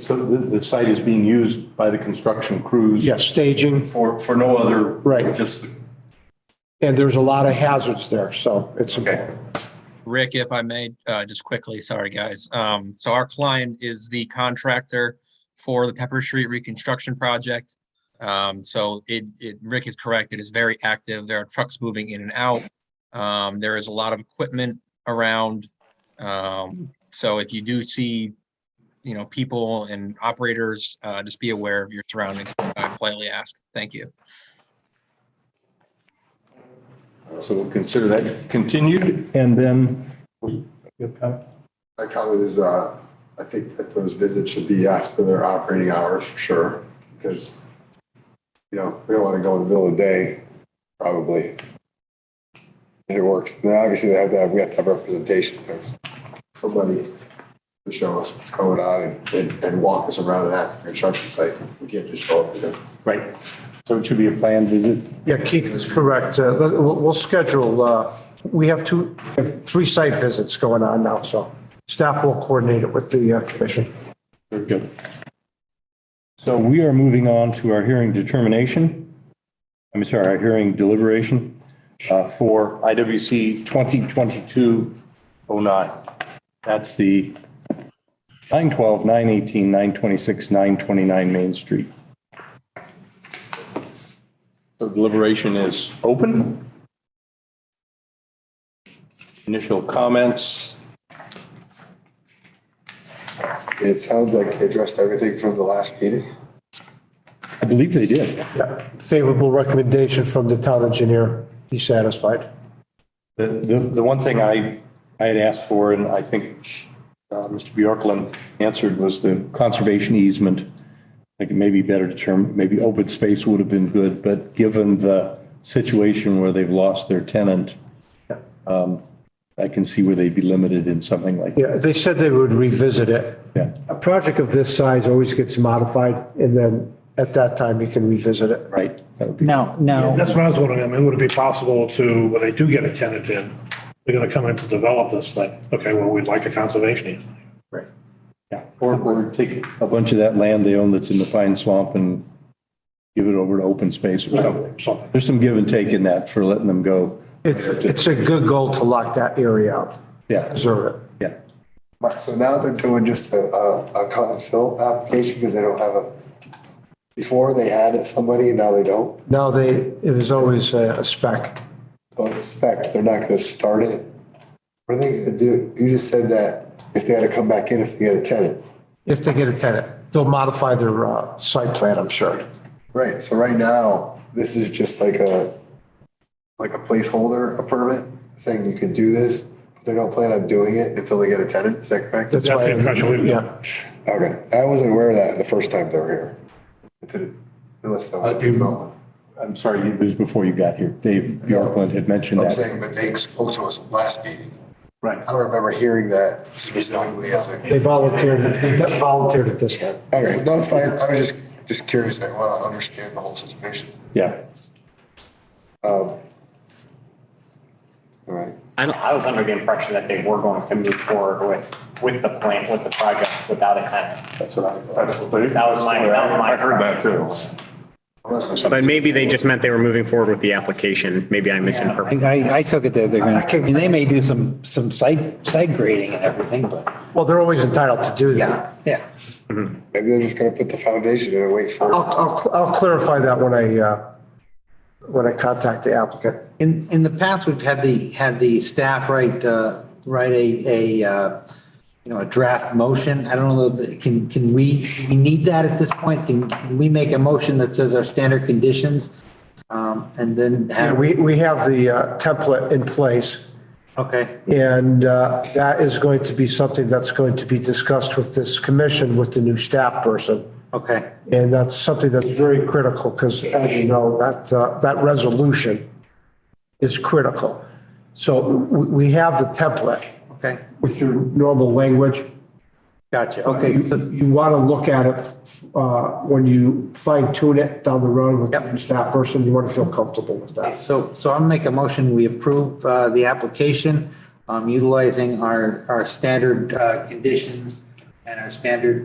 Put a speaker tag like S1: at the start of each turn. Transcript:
S1: So the, the site is being used by the construction crews?
S2: Yes, staging,
S1: For, for no other?
S2: Right.
S1: Just,
S2: and there's a lot of hazards there, so it's important.
S3: Rick, if I may, uh, just quickly, sorry, guys. Um, so our client is the contractor for the Pepper Street reconstruction project. Um, so it, it, Rick is correct. It is very active. There are trucks moving in and out. Um, there is a lot of equipment around. Um, so if you do see, you know, people and operators, uh, just be aware of your surroundings. I politely ask. Thank you.
S1: so we'll consider that continued and then?
S4: My comment is, uh, I think that those visits should be after their operating hours for sure, because, you know, we don't want to go in the middle of the day, probably. If It works. Now, obviously, they have to have, we have to have representation of somebody to show us what's going on and, and, and walk us around an active construction site. We can't just show up, you know.
S1: Right. So it should be a planned visit?
S5: Yeah, Keith is correct. Uh, let- We'll we'll schedule, uh, we have two, we have three site visits going on now, so staff will coordinate it with the uh, commission.
S1: Very good. So we are moving on to our hearing determination. I'm sorry, our hearing deliberation uh, for IWC 2022-09. That's the 912, 918, 926, 929 Main Street. So deliberation is open. Initial comments.
S4: It sounds like they addressed everything from the last meeting.
S1: I believe they did.
S5: Yeah, Favorable recommendation from the town engineer. He's satisfied.
S1: The, the, the one thing I, I had asked for, and I think uh, Mr. Bjorklund answered, was the conservation easement. I think it may be better to term, maybe open space would have been good, but given the situation where they've lost their tenant, um, I can see where they'd be limited in something like that.
S5: Yeah, they said they would revisit it.
S1: Yeah.
S5: A project of this size always gets modified, and then at that time, you can revisit it.
S1: Right. That would be-
S6: No, no,
S7: That's what I was wondering. I mean, would it be possible to, when they do get a tenant in, they're gonna come in to develop this thing? Okay, well, we'd like a conservation easement.
S1: Or, or take a bunch of that land they own that's in the fine swamp and give it over to open space or something.
S7: Something.
S1: There's some give and take in that for letting them go.
S5: It's, it's a good goal to lock that area out,
S1: Yeah,
S5: preserve it.
S1: yeah.
S4: So now they're doing just a, a, a cut and fill application because they don't have a, before they had somebody and now they don't.
S5: Now they, it is always a a spec.
S4: So it's a spec, they're not gonna start it. What are they gonna do? You just said that if they had to come back in, if they had a tenant.
S5: If they get a tenant, they'll modify their uh, site plan, I'm sure.
S4: Right, so right now, this is just like a, like a placeholder, a permit saying you can do this. but They don't plan on doing it until they get a tenant, is that correct?
S5: That's
S7: That's
S5: why-
S7: the impression we've got.
S5: Yeah,
S4: Okay, I wasn't aware of that the first time they were here. It didn't- Unless they was development.
S1: I'm sorry, it was before you got here. Dave Bjorklund had mentioned
S4: I'm
S1: that.
S4: saying, but they spoke to us last meeting.
S1: Right.
S4: I don't remember hearing that specifically as a.
S5: they volunteered, they got volunteered at this time.
S4: Okay, no, it's fine. I was just, just curious. I want to understand the whole situation.
S1: Yeah.
S4: All right.
S8: I don't- I was under the impression that they were going to move forward with, with the plan, with the project without a tenant.
S1: That's what I, that's what
S8: That was my, that was my. I heard that too. But maybe they just meant they were moving forward with the application. Maybe I misinterpreted.
S6: I, I took it that they're gonna, and they may do some, some site, site grading and everything, but,
S5: Well, they're always entitled to do that.
S6: yeah, yeah.
S4: Maybe they're just going to put the foundation in and wait for.
S5: I'll, I'll, I'll clarify that when I, uh, when I contact the applicant.
S6: In, in the past, we've had the, had the staff write, uh, write a, a, uh, you know, a draft motion. I don't know, that- can, can we, we need that at this point? Can can we make a motion that says our standard conditions? Um, and then
S5: And
S6: have,
S5: we, we have the uh, template in place
S6: okay,
S5: and uh, that is going to be something that's going to be discussed with this commission with the new staff person.
S6: okay.
S5: And that's something that's very critical because as you know, that, uh, that resolution is critical. So we, we have the template
S6: Okay,
S5: with your normal language.
S6: gotcha. Okay,
S5: You,
S6: so,
S5: you want to look at it, uh, when you fine tune it down the road with
S6: Yep.
S5: the staff person, you want to feel comfortable with that.
S6: Uh, so, so I'll make a motion, we approve, uh, the application, um, utilizing our, our standard, uh, conditions and our standard